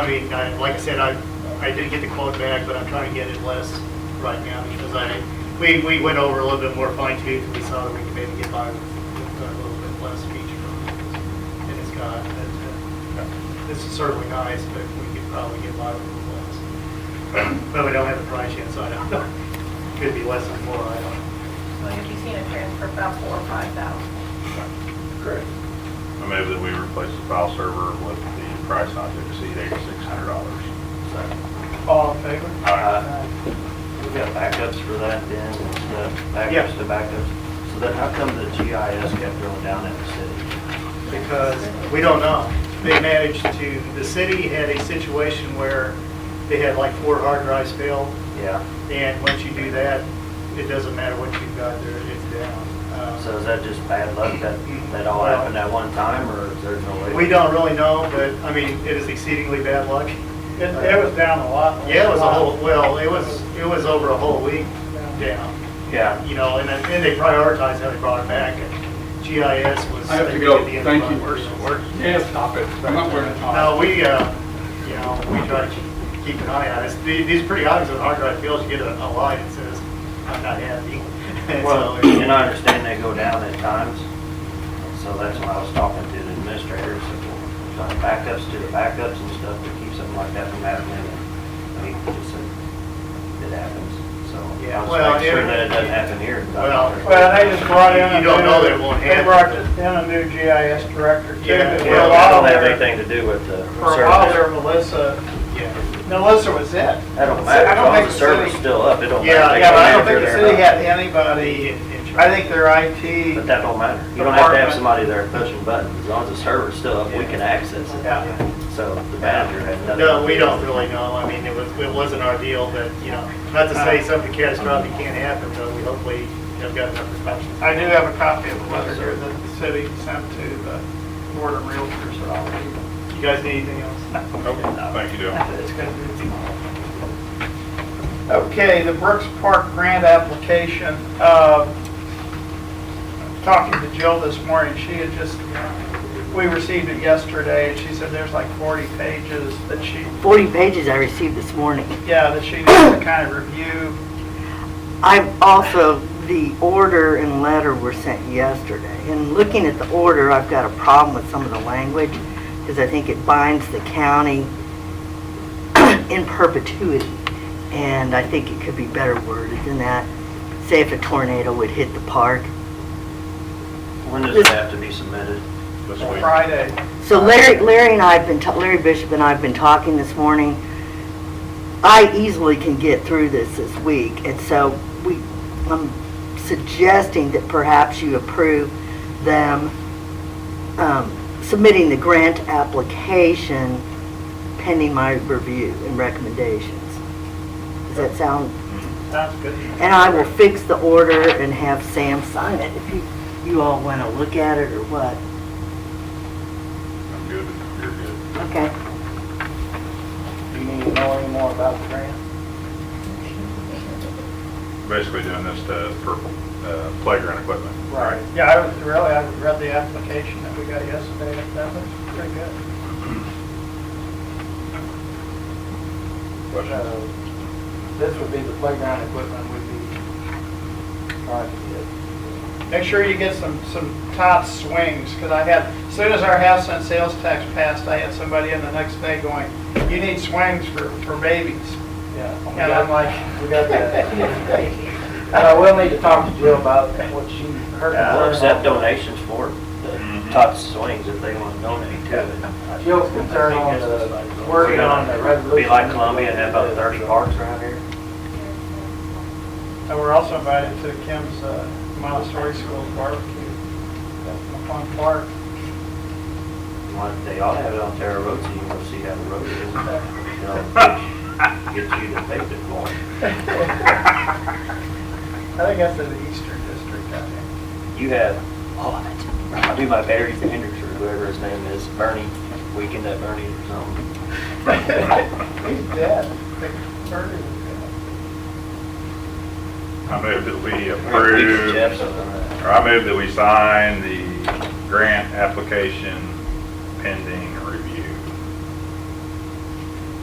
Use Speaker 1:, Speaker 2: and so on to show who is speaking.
Speaker 1: I mean, I, like I said, I, I did get the quote back, but I'm trying to get it less right now because I, we, we went over a little bit more fine tooth. We saw that we could maybe get by with a little bit less feature on it. And it's got, that, uh, this is certainly nice, but we could probably get by with a little less. But we don't have the price yet, so I don't know. Could be less than four, I don't know.
Speaker 2: Well, you'd be seeing a transfer of about four or five thousand.
Speaker 3: Correct.
Speaker 4: I move that we replace the file server with the price not to exceed eighty-six hundred dollars.
Speaker 1: All in favor?
Speaker 3: Uh, We've got backups for that then, and stuff,
Speaker 1: Yeah.
Speaker 3: backups to backups. So then how come the GIS kept going down in the city?
Speaker 1: because we don't know. They managed to, the city had a situation where they had like four hard drives failed,
Speaker 3: Yeah,
Speaker 1: and once you do that, it doesn't matter what you've got there, it's down. Uh,
Speaker 3: so is that just bad luck that, that all happened at one time, or is there no way?
Speaker 1: We don't really know, but, I mean, it is exceedingly bad luck.
Speaker 5: It, it was down a lot.
Speaker 1: Yeah, it was a whole, well, it was, it was over a whole week down,
Speaker 3: Yeah,
Speaker 1: you know, and then and they prioritized how they brought it back, and GIS was.
Speaker 6: I have to
Speaker 1: think,
Speaker 6: go.
Speaker 1: at the end of
Speaker 6: Thank
Speaker 1: the
Speaker 6: you.
Speaker 1: month.
Speaker 6: Yeah, stop it. I'm not wearing a
Speaker 1: No,
Speaker 6: tie.
Speaker 1: we, uh, you know, we try to keep- keep an eye on it. The- These pretty obvious with hard drive fields, you get a a line that says, I'm not happy. And so
Speaker 3: well,
Speaker 1: it-
Speaker 3: and I understand they go down at times, so that's why I was talking to the administrators, if we're trying backups to the backups and stuff to keep something like that from happening. and, I mean, just, uh, it happens, so
Speaker 1: Yeah,
Speaker 3: I
Speaker 1: well,
Speaker 3: was making sure
Speaker 1: it-
Speaker 3: that it doesn't happen here.
Speaker 1: Well,
Speaker 5: Well, they just brought in. a
Speaker 1: You don't know
Speaker 5: new-
Speaker 1: that it won't
Speaker 5: They
Speaker 1: happen.
Speaker 5: brought in a new GIS director too.
Speaker 1: Yeah,
Speaker 5: but
Speaker 3: Yeah,
Speaker 5: for
Speaker 3: it
Speaker 5: a while
Speaker 3: don't have
Speaker 5: there-
Speaker 3: anything to do with the
Speaker 5: For a while there,
Speaker 3: service.
Speaker 5: Melissa,
Speaker 1: Yeah,
Speaker 5: Melissa was it.
Speaker 3: That don't
Speaker 5: I
Speaker 3: matter,
Speaker 5: don't
Speaker 3: because
Speaker 5: think
Speaker 3: the
Speaker 5: the
Speaker 3: server's
Speaker 5: city-
Speaker 3: still up, it don't
Speaker 1: Yeah,
Speaker 3: matter.
Speaker 5: Yeah, but I don't
Speaker 3: They
Speaker 5: think the
Speaker 3: go in
Speaker 5: city
Speaker 3: there or
Speaker 5: had anybody, I think their IT.
Speaker 3: not. But that don't matter. You don't have to
Speaker 5: Department.
Speaker 3: have somebody there pushing buttons, as long as the server's still up, we can access it.
Speaker 5: Yeah.
Speaker 3: So the manager had nothing.
Speaker 1: no, we don't really know. I mean, it was, it wasn't our deal, but, you know, not to say something catastrophic can't happen, but we hopefully have got enough precautions.
Speaker 5: I do have a copy of the letter here that the city sent to the board of realtors that I'll read.
Speaker 1: You guys need anything else?
Speaker 4: Okay, thank you, Dale.
Speaker 5: It's gonna be tomorrow. Okay, the Brooks Park grant application, uh, talking to Jill this morning, she had just, we received it yesterday, and she said there's like 40 pages that she,
Speaker 7: 40 pages I received this morning.
Speaker 5: yeah, that she needs to kind of review.
Speaker 7: I've also, the order and letter were sent yesterday. And looking at the order, I've got a problem with some of the language because I think it binds the county in perpetuity. And I think it could be better worded than that. Say if a tornado would hit the park.
Speaker 3: When does it have to be submitted?
Speaker 4: This week.
Speaker 5: Friday,
Speaker 7: So Larry, Larry and I have been, ta- Larry Bishop and I have been talking this morning. I easily can get through this this week, and so we, I'm suggesting that perhaps you approve them um, submitting the grant application pending my review and recommendations. Does that sound,
Speaker 5: sounds good.
Speaker 7: and I will fix the order and have Sam sign it if you, you all want to look at it or what.
Speaker 4: I'm good, you're good.
Speaker 7: Okay.
Speaker 5: You need to know any more about the grant?
Speaker 4: Basically doing this to, for uh, playground equipment.
Speaker 5: Right, yeah, I was, really, I read the application that we got yesterday, and that looks pretty good.
Speaker 4: Questions?
Speaker 5: So, This would be the playground equipment would be trying to get. Make sure you get some, some top swings, because I had, as soon as our house and sales tax passed, I had somebody in the next day going, you need swings for, for babies.
Speaker 8: Yeah,
Speaker 5: And I'm like,
Speaker 8: we got that. And I will need to talk to Jill about what she heard.
Speaker 5: Uh,
Speaker 3: We'll accept donations for the
Speaker 5: Mm-hmm.
Speaker 3: top swings if they want to donate to it.
Speaker 8: Jill's concern on the, working on the resolution.
Speaker 3: Be like Columbia and have about 30 parks around here.
Speaker 5: And we're also invited to Kim's uh, Montessori School barbecue at McClung Park.
Speaker 3: Like, They ought to have it on Terra Road so you can go see how the road is. You know, Get you to pay the coin.
Speaker 5: I think that's in the Eastern District, I think.
Speaker 3: You have, oh, I do my Barry Sanders or whoever his name is, Bernie, weekend at Bernie um, or something.
Speaker 5: He's dead. Murdered.
Speaker 4: I move that we
Speaker 3: Weekend Jeff's
Speaker 4: approve,
Speaker 3: something like that.
Speaker 4: or I move that we sign the grant application pending review.